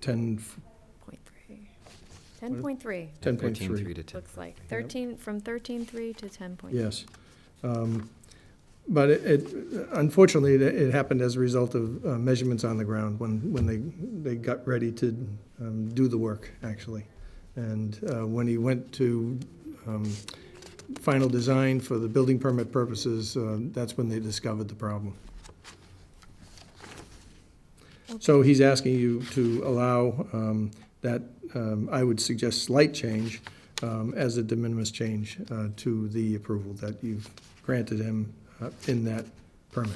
10, Point three. Ten point three, 10.3. to 10. looks like. Thirteen, from thirteen three to ten point. Yes. Um, But it- it, unfortunately, it- it happened as a result of uh, measurements on the ground when, when they, they got ready to um, do the work, actually. And uh, when he went to um, final design for the building permit purposes, uh, that's when they discovered the problem. So he's asking you to allow um, that, um, I would suggest slight change um, as a de minimis change uh, to the approval that you've granted him uh, in that permit.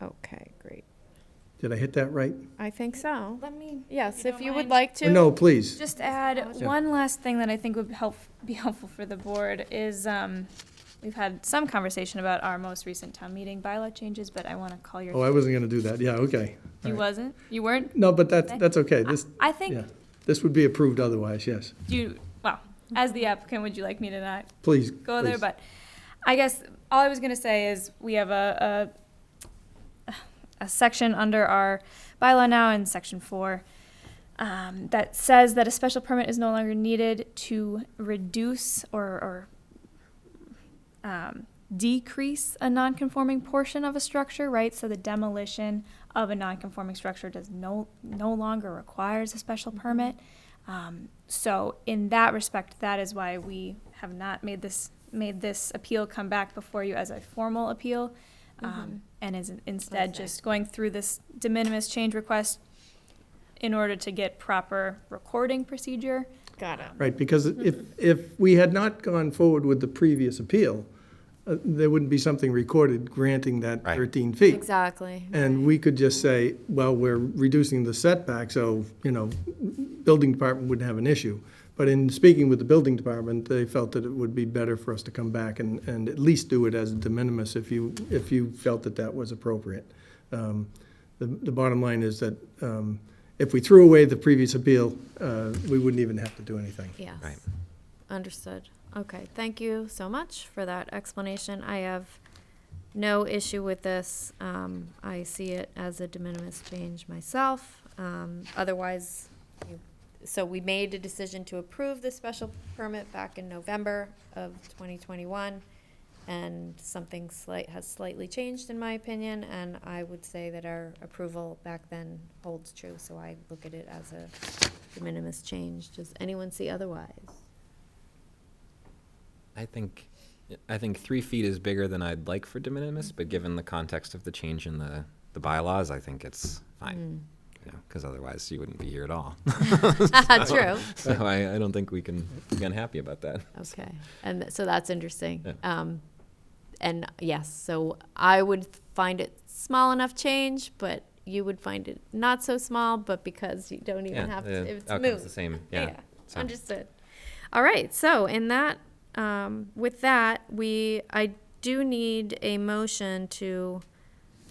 Okay, great. Did I hit that right? I think so. Let me Yes, you if don't you would mind. like to. Oh, No, please. just add Yeah. one last thing that I think would help, be helpful for the board is, um, we've had some conversation about our most recent town meeting bylaw changes, but I want to call Oh, I your, wasn't going to do that. Yeah, okay. you right. wasn't? You weren't? No, but that, that's okay. I This, I yeah, think, this would be approved otherwise, yes. you, well, as the applicant, would you like me to not Please. go there, please. but I guess all I was gonna say is we have a, a, a section under our bylaw now in section four um, that says that a special permit is no longer needed to reduce or, or um, decrease a non-conforming portion of a structure, right? So the demolition of a non-conforming structure does no, no longer requires a special Mm-hmm. permit. Um, so in that respect, that is why we have not made this, made this appeal come back before you as a formal appeal. Um, and is instead Okay. just going through this de minimis change request in order to get proper recording procedure. Got it. Right, because Mm-hmm. if, if we had not gone forward with the previous appeal, uh, there wouldn't be something recorded granting that Right. 13 feet. Exactly. And we could just say, well, we're reducing the setback, so, you know, building department wouldn't have an issue. But in speaking with the building department, they felt that it would be better for us to come back and, and at least do it as de minimis if you, if you felt that that was appropriate. Um, The, the bottom line is that um, if we threw away the previous appeal, uh, we wouldn't even have to do anything. Yes. Right. Understood. Okay, thank you so much for that explanation. I have no issue with this. Um, I see it as a de minimis change myself. Um, otherwise, you, so we made a decision to approve the special permit back in November of twenty twenty-one. And something slight, has slightly changed in my opinion, and I would say that our approval back then holds true, so I look at it as a de minimis change. Does anyone see otherwise? I think, I think three feet is bigger than I'd like for de minimis, but given the context of the change in the, the bylaws, I think it's fine. Hmm. Because otherwise you wouldn't be here at all. True. So I, I don't think we can be unhappy about that. Okay. And th- so that's interesting. Yeah. Um, and yes, so I would find it small enough change, but you would find it not so small, but because you don't even have to, it's Outcome's the moved. same, yeah. so. Understood. All right. So in that, um, with that, we, I do need a motion to,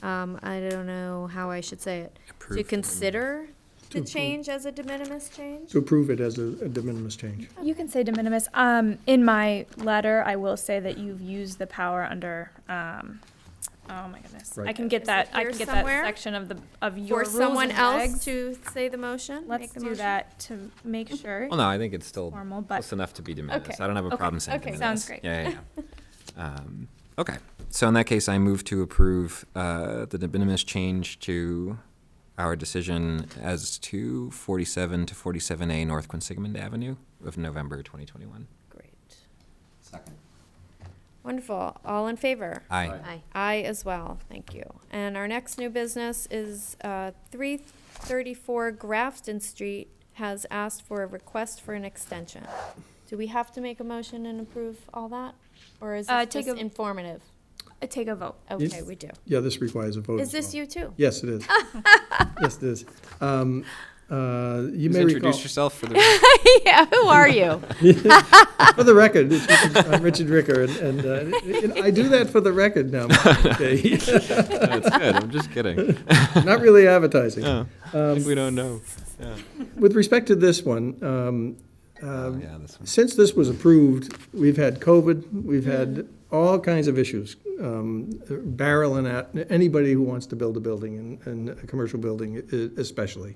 um, I don't know how I should say it, to Approve the de minimis. consider the approve. change as a de minimis change. To approve it as a a de minimis change. You can say de minimis. Um, in my letter, I will say that you've used the power under, um, oh my goodness. I Right. can get Is that, it I here can get that somewhere? section of the, of your For rules someone and else regs. to say the motion? Let's make the do motion? that to make sure. Well, no, I think it's still Formal, but- close enough to be de minimis. Okay, I don't have a okay, problem saying de okay, minimis. sounds great. Yeah, yeah, yeah. Um, Okay, so in that case, I move to approve uh, the de minimis change to our decision as to 47 to 47A North Quinsigamond Avenue of November 2021. Great. Second. Wonderful. All in favor? Aye. Aye. Aye as well. Thank you. And our next new business is uh, 334 Grafton Street has asked for a request for an extension. Do we have to make a motion and approve all that? Or is Uh, this take just a- informative? Uh, Take a vote. Okay, we do. Yeah, this requires a vote Is as well. this you too? Yes, it is. Yes, it is. Um, uh, You Please may recall. introduce yourself for the. Yeah, who are you? For the record, it's Richard, I'm Richard Ricker, and, and, uh, and I do that for the record now. okay? That's good, I'm just kidding. Not really advertising. Um, Yeah, I think we don't know. Yeah, With respect to this one, um, Oh, um, yeah, this one. since this was approved, we've had COVID, we've had all kinds of issues um, barreling at anybody who wants to build a building, and, and a commercial building e- especially.